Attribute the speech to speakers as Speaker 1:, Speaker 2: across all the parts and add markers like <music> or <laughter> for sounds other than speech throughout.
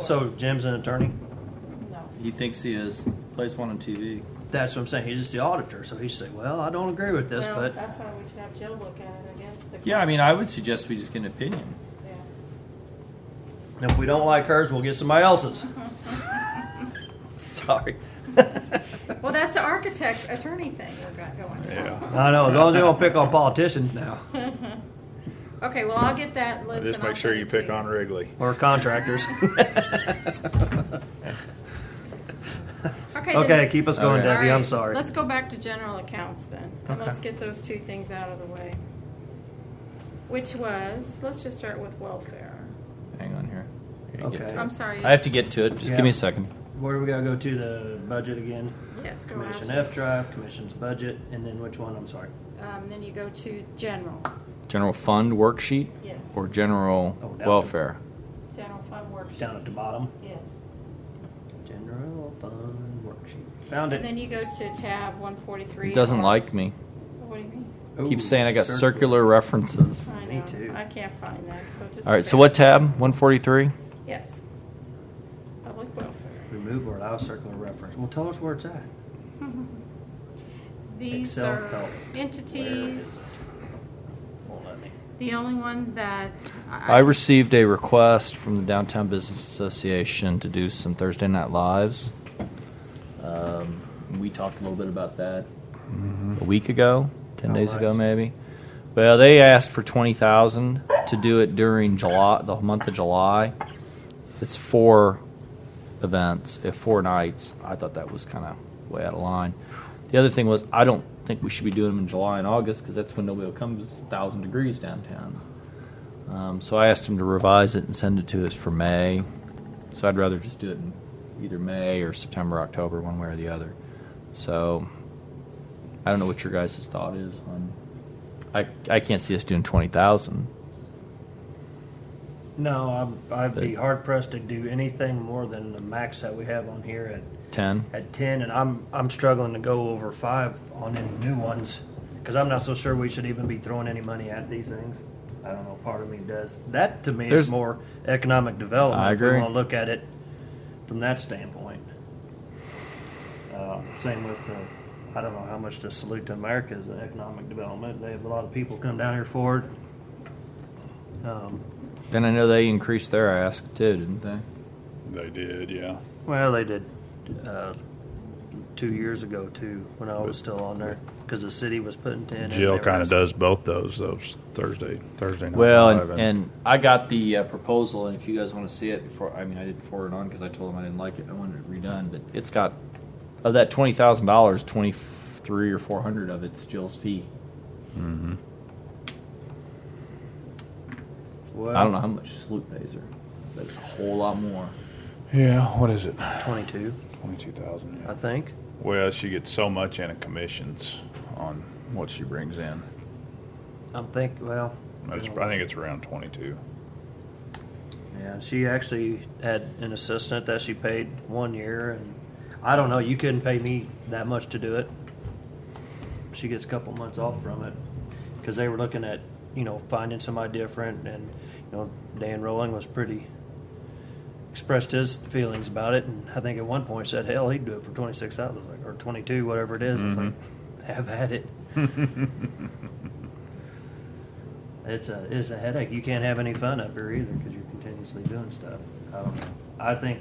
Speaker 1: So Jim's an attorney?
Speaker 2: No.
Speaker 3: He thinks he is. Plays one on TV.
Speaker 1: That's what I'm saying. He's just the auditor, so he said, "Well, I don't agree with this,
Speaker 2: Well,
Speaker 1: but
Speaker 2: That's why we should have Jill look at it, I guess. to-
Speaker 3: Yeah, I mean, I would suggest we just get an opinion.
Speaker 2: Yeah.
Speaker 1: if we don't like hers, we'll get
Speaker 2: <laughs>
Speaker 1: somebody else's." Sorry.
Speaker 2: Well, that's the architect attorney thing we've got going. <laughs>
Speaker 4: Yeah.
Speaker 1: I know. As long as they don't pick on politicians now
Speaker 2: Okay, well, I'll get that list and
Speaker 4: Just
Speaker 2: I'll
Speaker 4: make sure
Speaker 2: send
Speaker 4: you
Speaker 2: it to
Speaker 4: pick on Wrigley.
Speaker 1: or contractors.
Speaker 2: Okay.
Speaker 1: okay,
Speaker 2: then-
Speaker 1: keep us going,
Speaker 3: Okay.
Speaker 1: Debbie.
Speaker 2: All
Speaker 1: I'm
Speaker 2: right,
Speaker 1: sorry.
Speaker 2: Let's go back to general accounts then, and
Speaker 1: Okay.
Speaker 2: let's get those two things out of the way. Which was, let's just start with welfare.
Speaker 3: Hang on here. Here, get
Speaker 1: Okay.
Speaker 3: to it.
Speaker 2: I'm sorry.
Speaker 3: I have to get to it. Just
Speaker 1: Yeah.
Speaker 3: give me a second.
Speaker 1: Where do we gotta go to the budget again?
Speaker 2: Yes, go
Speaker 1: Commission
Speaker 2: out.
Speaker 1: F drive, commission's budget, and then which one? I'm sorry.
Speaker 2: Um, then you go to general,
Speaker 3: General fund worksheet
Speaker 2: yes,
Speaker 3: or general
Speaker 1: Oh, that one.
Speaker 3: welfare?
Speaker 2: general fund
Speaker 1: Down
Speaker 2: worksheet,
Speaker 1: at the bottom,
Speaker 2: yes.
Speaker 1: general fund worksheet. Found
Speaker 2: And
Speaker 1: it.
Speaker 2: then you go to tab one forty-three.
Speaker 3: It doesn't like me.
Speaker 2: What do you mean?
Speaker 1: Ooh,
Speaker 3: Keeps saying I got circular references.
Speaker 2: I
Speaker 1: Me
Speaker 2: know.
Speaker 1: too.
Speaker 2: I can't find that, so just.
Speaker 3: All right, so
Speaker 2: look
Speaker 3: what
Speaker 2: at
Speaker 3: tab? 143?
Speaker 2: it. Yes. Public welfare.
Speaker 1: Remove or allow circular reference. Well, tell us where it's at.
Speaker 2: These
Speaker 1: Excel
Speaker 2: are
Speaker 1: help.
Speaker 2: entities,
Speaker 1: Won't let me.
Speaker 2: the only one that.
Speaker 3: I received a request from the Downtown Business Association to do some Thursday Night Lives. Um, we talked a little bit about that a week ago, ten
Speaker 1: How
Speaker 3: days ago
Speaker 1: much?
Speaker 3: maybe. Well, they asked for twenty thousand to do it during July, the month of July. It's four events, if four nights. I thought that was kind of way out of line. The other thing was, I don't think we should be doing them in July and August because that's when nobody will come. 'cause It's a thousand degrees downtown. Um, so I asked him to revise it and send it to us for May. So I'd rather just do it in either May or September, October, one way or the other. So I don't know what your guys' thought is on. I I can't see us doing twenty thousand.
Speaker 1: No, I'd, I'd be
Speaker 3: But-
Speaker 1: hard pressed to do anything more than the max that we have on here at,
Speaker 3: Ten.
Speaker 1: at ten, and I'm, I'm struggling to go over five on any new ones, because I'm not so sure we should even be throwing any money at these things. I don't know, part of me does. That to me is
Speaker 3: There's-
Speaker 1: more economic development.
Speaker 3: I
Speaker 1: If we
Speaker 3: agree.
Speaker 1: want to look at it from that standpoint. Uh, same with the, I don't know how much to salute to America is in economic development. They have a lot of people come down here for it. Um,
Speaker 3: Then I know they increased their ask too, didn't they?
Speaker 4: They did, yeah.
Speaker 1: Well, they did uh, two years ago too, when I was still on there, because the city was putting ten. and
Speaker 4: Jill
Speaker 1: they were-
Speaker 4: kind of does both those, those Thursday, Thursday night.
Speaker 3: Well,
Speaker 4: Live
Speaker 3: and, and I got the uh, proposal, and if you guys want to see it before, I mean, I did forward it on because I told them I didn't like it. I wanted it redone, but it's got of that twenty thousand dollars, twenty three or four hundred of it's Jill's fee.
Speaker 1: Well,
Speaker 3: I don't know how much Sloop pays her, but it's a whole lot more.
Speaker 4: Yeah, what is it?
Speaker 1: Twenty-two,
Speaker 4: Twenty-two thousand,
Speaker 1: I think.
Speaker 4: Well, she gets so much in a commissions on what she brings in.
Speaker 1: I'm think. Well,
Speaker 4: It's, I think it's around twenty-two. <laughs>
Speaker 1: Yeah, she actually had an assistant that she paid one year, and I don't know. You couldn't pay me that much to do it. She gets a couple months off from it because they were looking at you know finding somebody different, and you know Dan Rowling was pretty expressed his feelings about it, and I think at one point said, "Hell, he'd do it for twenty six thousand, like or twenty two, whatever it is." It's like, have at it. It's a it's a headache. You can't have any fun up here either because you're continuously doing stuff. I don't know. I think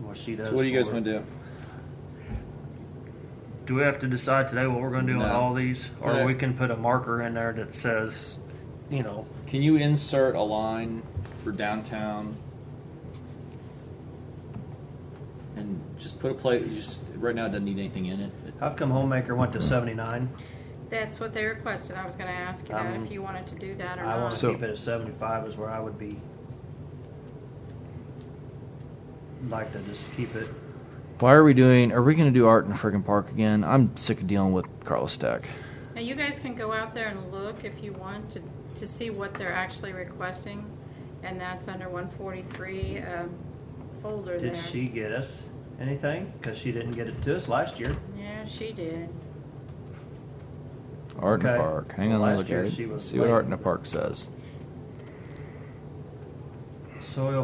Speaker 1: what she does.
Speaker 3: So what do you guys
Speaker 1: for-
Speaker 3: want to do?
Speaker 1: Do we have to decide today what we're going to do on
Speaker 3: No.
Speaker 1: all these, or
Speaker 3: Yeah.
Speaker 1: we can put a marker in there that says, you know,
Speaker 3: Can you insert a line for downtown? And just put a plate. You just right now it doesn't need anything in it.
Speaker 1: how come Homemaker went to seventy nine?
Speaker 2: That's what they requested. I was gonna ask you that,
Speaker 1: Um,
Speaker 2: if you wanted to do that or
Speaker 1: I want
Speaker 2: not.
Speaker 1: to
Speaker 4: So-
Speaker 1: keep it at seventy five is where I would be. Like to just keep it.
Speaker 3: Why are we doing? Are we going to do art in the friggin' park again? I'm sick of dealing with Carlos Stack.
Speaker 2: Now, you guys can go out there and look if you want to, to see what they're actually requesting, and that's under one forty-three, um, folder there.
Speaker 1: Did she get us anything? Because she didn't get it to us last year.
Speaker 2: Yeah, she did.
Speaker 3: Art in
Speaker 1: Okay.
Speaker 3: the park. Hang on, let me
Speaker 1: Last
Speaker 3: look
Speaker 1: year
Speaker 3: at
Speaker 1: she
Speaker 3: it.
Speaker 1: was
Speaker 3: See what
Speaker 1: late.
Speaker 3: art in the park says.
Speaker 1: Soil